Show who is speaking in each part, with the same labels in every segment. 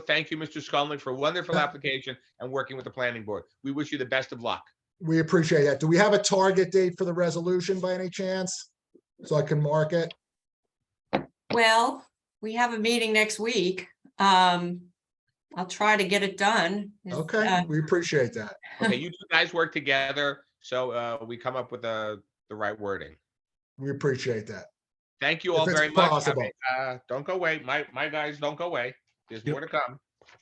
Speaker 1: Thank you, Mr. Scanlon, for a wonderful application and working with the planning board. We wish you the best of luck.
Speaker 2: We appreciate that. Do we have a target date for the resolution by any chance? So I can mark it?
Speaker 3: Well, we have a meeting next week. Um, I'll try to get it done. Is-
Speaker 2: Okay,
Speaker 3: uh,
Speaker 2: we appreciate that.
Speaker 1: Okay, you two guys work together, so uh, we come up with the, the right wording.
Speaker 2: We appreciate that.
Speaker 1: Thank you
Speaker 2: If
Speaker 1: all
Speaker 2: it's
Speaker 1: very much. I
Speaker 2: possible.
Speaker 1: mean, Uh, don't go away. My, my guys, don't go away. There's more to come.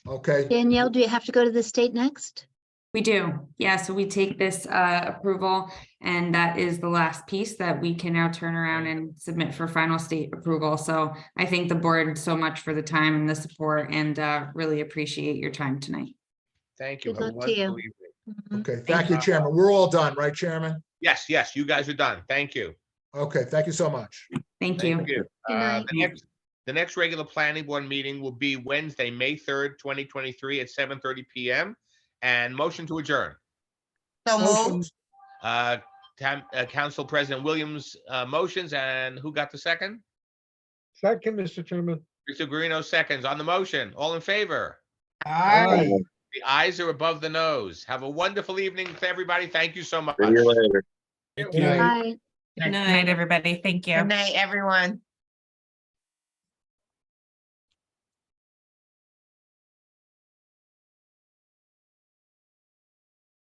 Speaker 2: Okay,
Speaker 4: Danielle, do you have to go to the state next?
Speaker 5: We do, yeah, so we take this uh approval and that is the last piece that we can now turn around and submit for final state approval. So I thank the board so much for the time and the support and uh really appreciate your time tonight.
Speaker 1: Thank you.
Speaker 4: Good
Speaker 1: Have a
Speaker 4: luck to you.
Speaker 1: wonderful evening.
Speaker 4: Mm-hmm.
Speaker 2: okay.
Speaker 1: Thank
Speaker 2: Thank you,
Speaker 1: you.
Speaker 2: Chairman. We're all done, right, Chairman?
Speaker 1: Yes, yes, you guys are done. Thank you.
Speaker 2: Okay, thank you so much.
Speaker 5: Thank you.
Speaker 4: Good
Speaker 1: Uh,
Speaker 4: night.
Speaker 1: The next- the next regular planning board meeting will be Wednesday, May 3rd, 2023 at 7:30 PM. And motion to adjourn.
Speaker 6: So moved.
Speaker 2: Motion-
Speaker 1: Uh, Tam- uh, Council President Williams uh, motions and who got the second?
Speaker 7: Second, Mr. Chairman.
Speaker 1: Mr. Guarino seconds on the motion. All in favor?
Speaker 6: Aye.
Speaker 1: The eyes are above the nose. Have a wonderful evening to everybody. Thank you so much.
Speaker 8: See you later.
Speaker 7: Good
Speaker 2: Good night.
Speaker 7: night.
Speaker 4: Bye.
Speaker 3: Good
Speaker 9: Good
Speaker 3: night.
Speaker 9: night, everybody. Thank you.
Speaker 6: Good night, everyone.